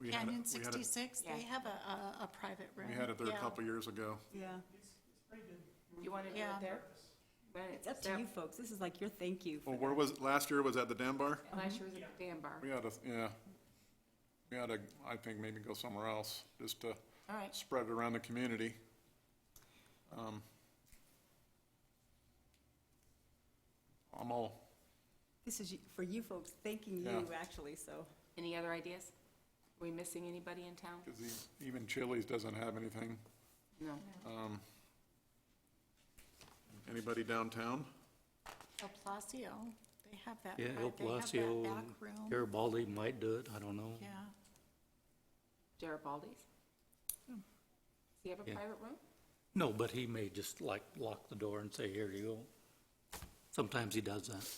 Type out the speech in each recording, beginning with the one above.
We had Canyon it- we had it- sixty-six, they Yeah. have a, a, a private room. We had it there a Yeah. couple years ago. Yeah, You want to do it Yeah. there? When it's up to there- you folks. This is like your thank you. for Well, where was, last year was at the Denbar? Mm-hmm. Last year was at the Dan Bar. We had a, yeah. We had to, I think, maybe go somewhere else, just to All right, spread it around the community. Um, I'm all, This is you- for you folks, thanking you, Yeah. actually, so. Any other ideas? Are we missing anybody in town? because e, even Chili's doesn't have anything. No. Um, Anybody downtown? El Palacio, they have that, Yeah, right, El they have that Palacio back and room. Garibaldi might do it, I don't know. Yeah, Garibaldi's? Hmm. Does he have a Yeah. private room? No, but he may just like lock the door and say, here you go. Sometimes he does that.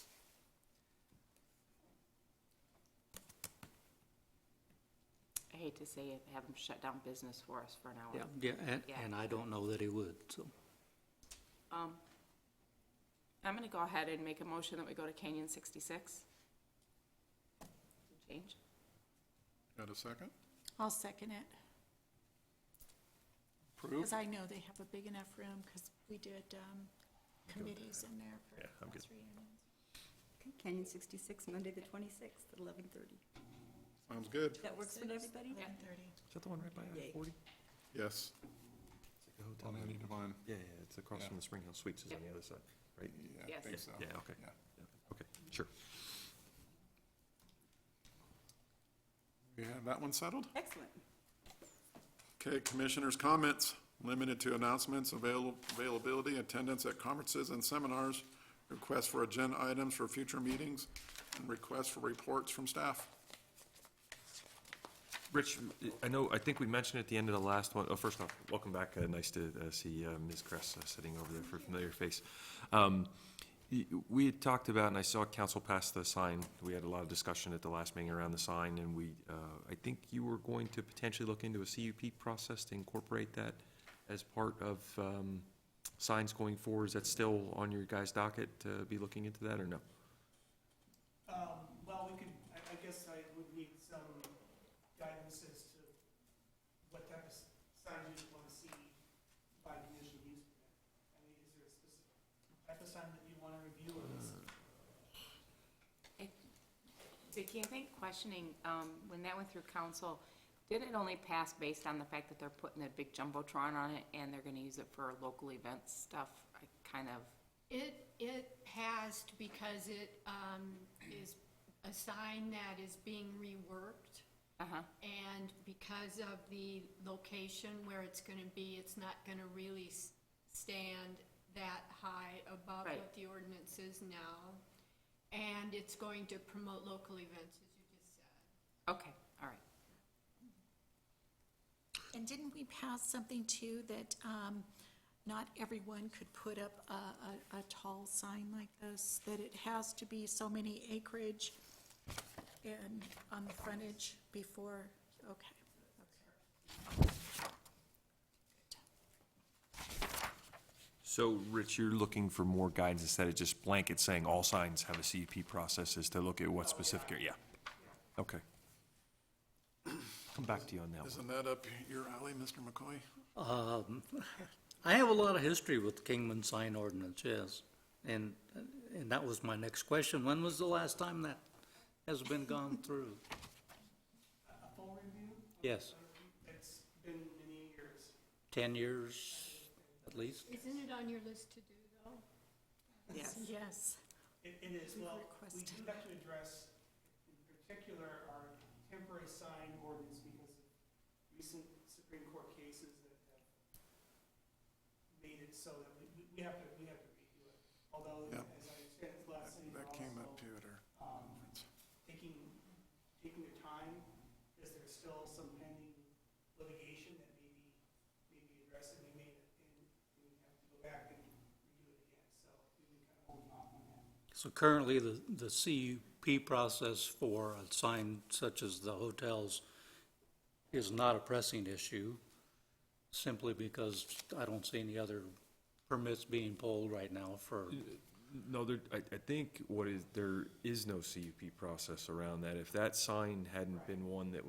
I hate to say it, have him shut down business for us for an hour. Yeah, yeah, and, Yeah. and I don't know that he would, so. Um, I'm gonna go ahead and make a motion that we go to Canyon sixty-six. Change. Got a second? I'll second it, Approved? because I know they have a big enough room, because we did, um, committees in there for class reunions. Okay, Canyon 66, Monday, the 26th, at 11:30. Sounds good. That works for everybody? Eleven thirty. Is that the one right by Yay. forty? Yes, The hotel. on Andy Devine. Yeah, yeah, it's across Yeah. from the Spring Hill Suites is on the other side, right? Yeah, I Yes. think so. Yeah, okay. Yeah. Yeah, Okay, sure. We have that one settled? Excellent. Okay, commissioners' comments, limited to announcements, avail- availability, attendance at conferences and seminars, requests for agenda items for future meetings, and requests for reports from staff. Rich, I know, I think we mentioned at the end of the last one, oh, first off, welcome back. Uh, Nice to uh, see uh, Ms. Cress uh, sitting over there for a familiar face. Um, y- We had talked about, and I saw council pass the sign, we had a lot of discussion at the last meeting around the sign, and we, uh, I think you were going to potentially look into a CUP process to incorporate that as part of um, signs going forward. Is that still on your guys' docket to be looking into that, or no? Um, well, we could, I, I guess I would need some guidance as to what type of s- sign you'd wanna see by conditional use permit. I mean, is there a specific type of sign that you wanna review or is? Vicki, I think questioning, um, when that went through council, did it only pass based on the fact that they're putting a big jumbotron on it and they're gonna use it for local events stuff? I kind of, It, it passed because it um, is a sign that is being reworked, uh-huh, and because of the location where it's gonna be, it's not gonna really s- stand that high above Right. what the ordinance is now. And it's going to promote local events, as you just said. okay, all right. And didn't we pass something too, that, um, not everyone could put up a, a, a tall sign like this? That it has to be so many acreage and on the frontage before, okay. So, Rich, you're looking for more guidance instead of just blanket saying all signs have a CUP process is to look at what specific, yeah. Okay. Come back to you on that one. Isn't that up your alley, Mr. McCoy? Um, I have a lot of history with Kingman sign ordinance, yes. And, and that was my next question. When was the last time that has been gone through? A full review? Yes, It's been many years. ten years at least? Isn't it on your list to do, though? Yes. Yes. It, it is, We've well, we requested do have to address in particular our temporary sign ordinance because of recent Supreme Court cases that have made it so that we, we- we have to, we have to redo it. Although, Yeah. as I understand, it's last city That came up too at also, our um, conference. taking, taking their time, because there's still some pending litigation that may be, may be addressed and we may, and we have to go back and redo it again, so we've been kind of holding off on that. So currently, the, the CUP process for a sign such as the hotels is not a pressing issue, simply because I don't see any other permits being pulled right now for, No, there, I, I think what is, there is no CUP process around that. If that sign hadn't been one that was